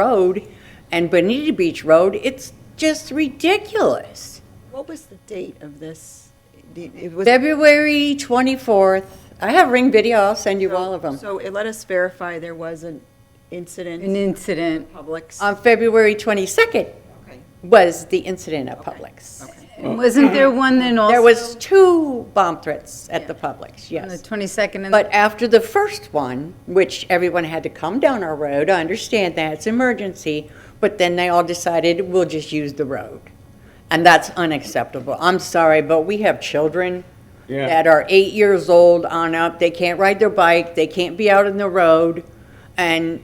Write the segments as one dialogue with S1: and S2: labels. S1: Road and Bonita Beach Road, it's just ridiculous.
S2: What was the date of this? The- It was.
S1: February 24th, I have ring video, I'll send you all of them.
S2: So it let us verify there was an incident
S3: an
S2: in
S3: incident.
S2: Publix.
S1: On February 22nd
S2: Okay.
S1: was the incident at Publix.
S3: And Wasn't there one then also?
S1: There was two bomb threats at the Publix,
S3: On the
S1: yes.
S3: 22nd and.
S1: But after the first one, which everyone had to come down our road, I understand that, it's emergency, but then they all decided, we'll just use the road. And that's unacceptable. I'm sorry, but we have children
S4: Yeah.
S1: that are eight years old on up, they can't ride their bike, they can't be out in the road, and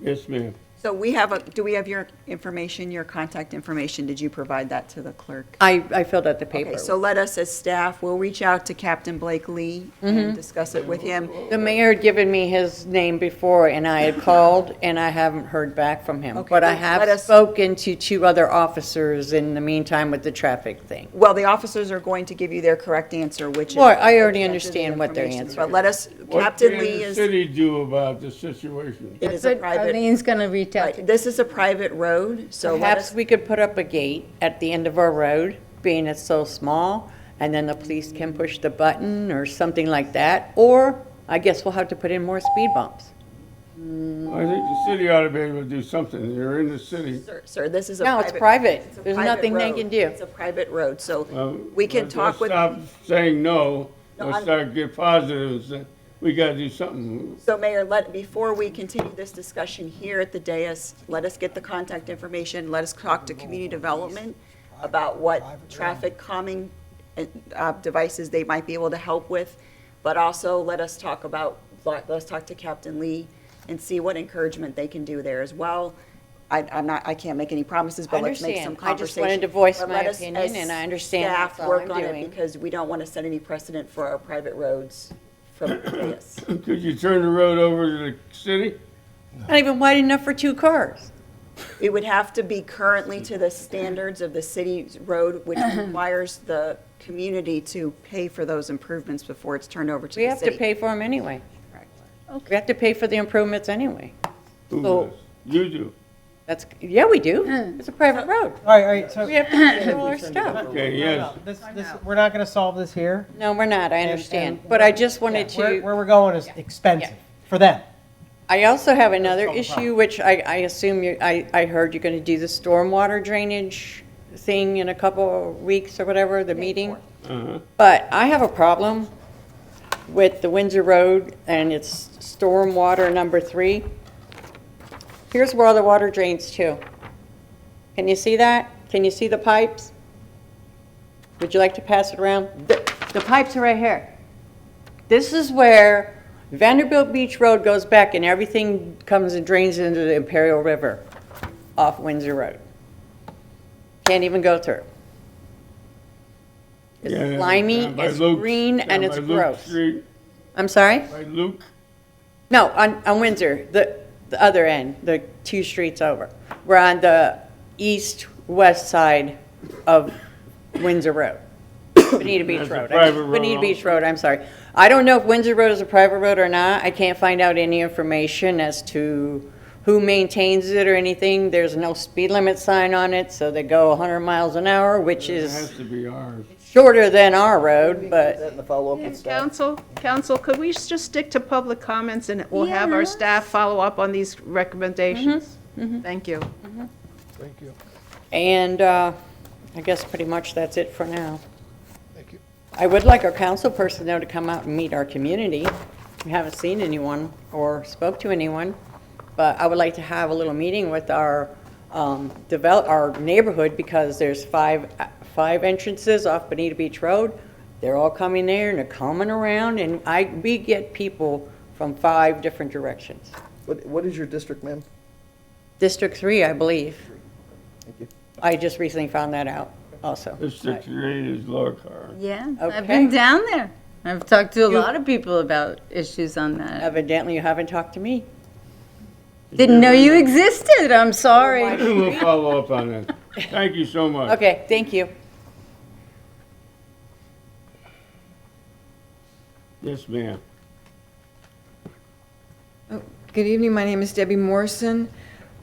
S4: Yes, ma'am.
S2: So we have, a. do we have your information, your contact information? Did you provide that to the clerk?
S1: I, I filled out the paper.
S2: Okay, so let us as staff, we'll reach out to Captain Blake Lee
S1: Mm-hmm.
S2: and discuss it with him.
S1: The mayor had given me his name before, and I had called, and I haven't heard back from him.
S2: Okay,
S1: But I
S2: let-
S1: have
S2: let us-
S1: spoken to two other officers in the meantime with the traffic thing.
S2: Well, the officers are going to give you their correct answer, which is.
S1: Well, I already
S2: Captain
S1: understand what their
S2: information,
S1: answer
S2: But
S1: is.
S2: let us,
S4: What
S2: Captain
S4: can
S2: Lee
S4: the
S2: is,
S4: city do about the situation?
S2: it is a private,
S3: Arlene's gonna reach out to.
S2: right, this is a private road, so let
S1: Perhaps
S2: us,
S1: we could put up a gate at the end of our road, being it's so small, and then the police can push the button or something like that. Or I guess we'll have to put in more speed bumps.
S4: I think the city ought to be able to do something. You're in the city.
S2: sir- sir, this is a private.
S1: No, it's private.
S2: it's a
S1: There's
S2: private
S1: nothing they
S2: road.
S1: can do.
S2: It's a private road,
S4: Well,
S2: so we can
S4: Uh, let's-
S2: talk with,
S4: let's Stop saying no.
S2: No,
S4: Let's
S2: I'm-
S4: start get positive and say, we gotta do something.
S2: so Mayor, let, before we continue this discussion here at the dais, let us get the contact information, let us talk to community development about what traffic calming uh, uh, devices they might be able to help with, but also let us talk about, let us talk to Captain Lee and see what encouragement they can do there as well. I, I'm not, I can't make any promises, but
S1: I
S2: let's make some
S1: understand. I just
S2: conversation.
S1: wanted to voice
S2: But
S1: my
S2: let us,
S1: opinion,
S2: as
S1: and I understand that's all
S2: Staff
S1: I'm
S2: work on it
S1: doing.
S2: because we don't want to set any precedent for our private roads from, yes.
S4: Could you turn the road over to the city?
S1: Not even wide enough for two cars.
S2: It would have to be currently to the standards of the city's road, which requires the community to pay for those improvements before it's turned over to
S1: We
S2: the
S1: have to
S2: city.
S1: pay for them anyway. We have to pay for the improvements anyway.
S4: Who
S1: So-
S4: does? You do.
S1: That's, yeah, we do. It's a private road.
S5: All right, all right, so,
S1: We have to pay for all our stuff.
S4: Okay,
S2: Oh,
S4: yes.
S5: this, this, we're not gonna solve this here.
S1: No, we're not, I
S5: and-
S1: understand.
S5: and
S1: But I just wanted
S5: Yeah, Where,
S1: to,
S5: where we're going is expensive for them.
S1: I also have another
S5: Solve the
S1: issue,
S5: problem.
S1: which I, I assume you, I, I heard you're going to do the stormwater drainage thing in a couple of weeks or whatever, the meeting.
S4: Uh-huh.
S1: But I have a problem with the Windsor Road and its stormwater number three. Here's where all the water drains to. Can you see that? Can you see the pipes? Would you like to pass it around? The the pipes are right here. This is where Vanderbilt Beach Road goes back and everything comes and drains into the Imperial River off Windsor Road. Can't even go through.
S4: Yeah,
S1: It's slimy,
S4: down by
S1: it's
S4: Luke's-
S1: green, and
S4: down
S1: it's
S4: by Luke
S1: gross.
S4: Street,
S1: I'm sorry?
S4: By Luke,
S1: No, on, on Windsor, the, the other end, the two streets over. We're on the east-west side of Windsor Road, Bonita Beach
S4: That's a
S1: Road.
S4: private road
S1: Bonita Beach
S4: also.
S1: Road, I'm sorry. I don't know if Windsor Road is a private road or not. I can't find out any information as to who maintains it or anything. There's no speed limit sign on it, so they go 100 miles an hour, which
S4: it has
S1: is
S4: to be ours.
S1: shorter than our road, but.
S6: Council, council, could we just stick to public comments and we'll have our staff follow up on these recommendations? Thank you.
S7: Thank you.
S1: And uh, I guess pretty much that's it for now.
S7: Thank you.
S1: I would like our council person, though, to come out and meet our community. We haven't seen anyone or spoke to anyone, but I would like to have a little meeting with our um, develop, our neighborhood, because there's five, five entrances off Bonita Beach Road. They're all coming there and they're coming around, and I, we get people from five different directions.
S7: What, what is your district, ma'am?
S1: District three, I believe.
S7: Thank you.
S1: I just recently found that out also.
S4: District three is lower car.
S3: Yeah,
S1: Okay.
S3: I've been down there. I've talked to a lot of people about issues on that.
S1: Evidently, you haven't talked to me.
S3: Didn't know you existed, I'm sorry.
S4: We'll follow up on that. Thank you so much.
S1: Okay, thank you.
S4: Yes, ma'am.
S8: Good evening, my name is Debbie Morrison.